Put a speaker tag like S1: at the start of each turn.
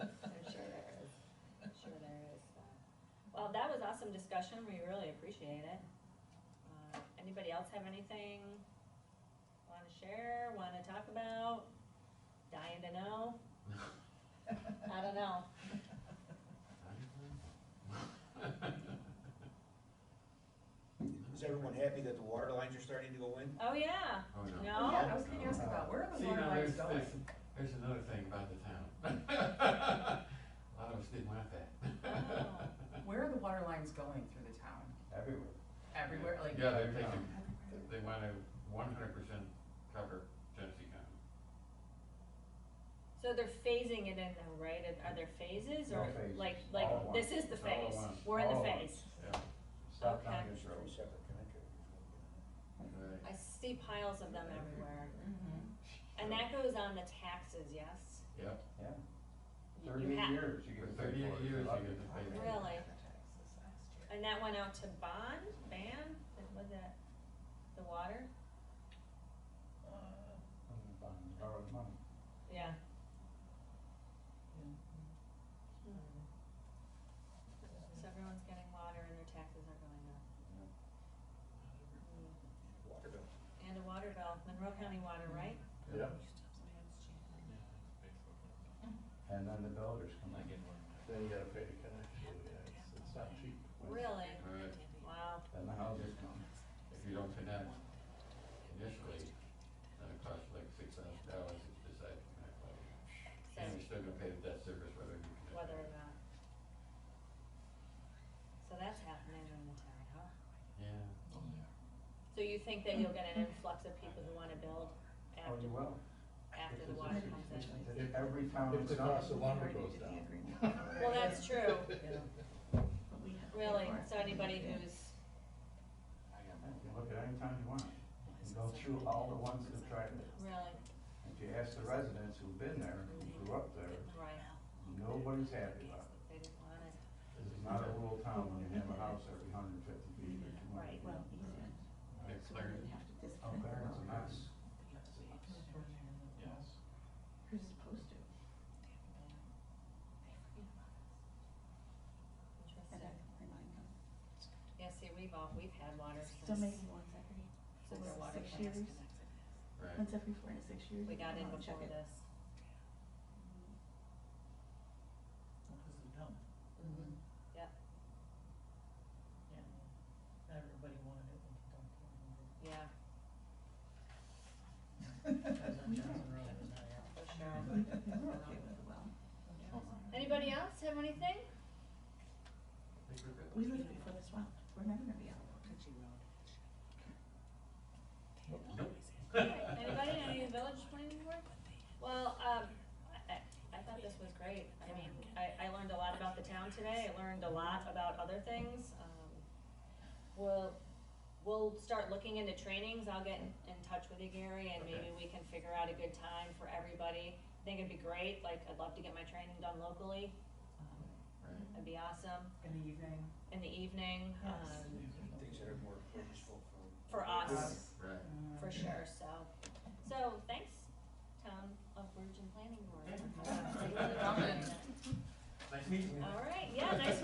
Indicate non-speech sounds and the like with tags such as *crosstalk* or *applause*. S1: uh, awesome discussion, we really appreciate it. Uh, Anybody else have anything wanna share, wanna talk about, dying to know? I don't know,
S2: Is everyone happy that the water lines are starting to go in?
S1: oh yeah,
S3: Oh, yeah.
S1: no?
S4: Oh, yeah, I was gonna ask about, where are the
S3: See,
S4: water
S3: now,
S4: lines
S3: there's-
S4: going?
S3: there's- There's another thing about the town. *laughs* A lot of us didn't like that.
S4: Where are the water lines going through the town?
S5: Everywhere.
S4: Everywhere, like?
S3: Yeah, they're taking, they wanna one hundred percent cover Genesee County.
S1: So they're phasing it in though, right, Are- are there phases,
S5: No
S1: or
S5: phases.
S1: like,
S5: All at
S1: like,
S5: once.
S1: this is the
S3: All at
S1: phase,
S3: once.
S1: we're in the
S5: All at
S1: phase?
S3: Yeah,
S5: Stop
S1: Okay.
S5: counting this
S2: Three
S5: road.
S2: separate contractors.
S3: right.
S1: I see piles of them everywhere,
S4: Mhm.
S1: and that goes on the taxes, yes?
S3: Yep,
S5: Yeah,
S1: You- you
S5: thirty-eight
S1: ha-
S5: years you
S3: for
S5: get paid
S3: thirty-eight
S5: for it.
S3: years
S5: Lucky.
S3: you get to pay that.
S1: Really? And that went out to bond, ban, That- was that the water?
S5: Uh, bond, Borrowed money.
S1: Yeah. Hmm.
S4: Yeah.
S1: So everyone's getting water and their taxes are going up. Mm.
S2: Water bill.
S1: And a water bill, Monroe County water, right?
S5: Yeah. And then the builders come in.
S6: Then you gotta pay the connection, yeah, it's, it's not cheap.
S1: Really?
S3: Right,
S1: Wow.
S5: Then the houses come.
S3: if you don't connect initially, then it costs like six thousand dollars if you decide to connect later.
S1: So
S3: And you're still gonna pay the debt service whether you connect.
S1: whether or not. So that's happening in the town, huh?
S3: Yeah.
S1: So you think that you'll get an influx of people who wanna build
S5: Oh,
S1: after,
S5: you will.
S1: after the water comes in?
S6: If-
S5: Every town
S6: If
S5: is
S6: the cost
S5: done.
S6: of lumber goes down.
S1: Well, that's true, really, so anybody who's,
S5: You can look at any town you want. You can go through all the ones that tried it.
S1: really,
S5: If you ask the residents who've been there, who grew up there,
S1: right,
S5: nobody's happy about it.
S1: they didn't want it.
S5: This is not a rural town when you have a house every hundred and fifty feet or two hundred
S1: Right.
S5: feet.
S3: Yeah, Clarence.
S5: Out there, it's Oh, a mess.
S6: Yes.
S7: Who's supposed to? And I
S1: Interesting.
S7: can remind them.
S1: Yeah, see, we've all, we've had water
S7: So
S1: since,
S7: maybe once every,
S1: since the
S7: four to
S1: water
S7: six
S1: plants
S7: years.
S1: connected.
S3: Right.
S7: once every four to six years.
S1: We
S7: you
S1: got
S7: come
S1: in
S7: out and check
S1: before
S7: it.
S1: this.
S4: Mhm.
S8: Mm-hmm.
S1: Yep.
S8: Yeah, not everybody wanted it when you dumped it in there.
S1: Yeah,
S8: That was on Johnson Road, it was not out.
S1: for sure.
S7: We're okay with the well.
S1: Anybody else have anything?
S3: Think we're good?
S7: We live before this well, we're never gonna be out.
S1: Okay, Anybody, any village planning board? Well, um, I, I- I thought this was great. I mean, I, I learned a lot about the town today. I learned a lot about other things. Um, We'll, we'll start looking into trainings. I'll get in in touch with you, Gary, and maybe we can figure out a good time for everybody. I think it'd be great, like, I'd love to get my training done locally. Um,
S3: Right.
S1: It'd be awesome.
S8: In the evening.
S1: In the evening, um,
S8: Yes.
S2: Things that are more useful for.
S1: for us.
S3: Right.
S8: Mm-hmm.
S1: for sure, so. So, thanks, Town of Virgin Planning Board.
S3: Nice meeting you.
S1: All right.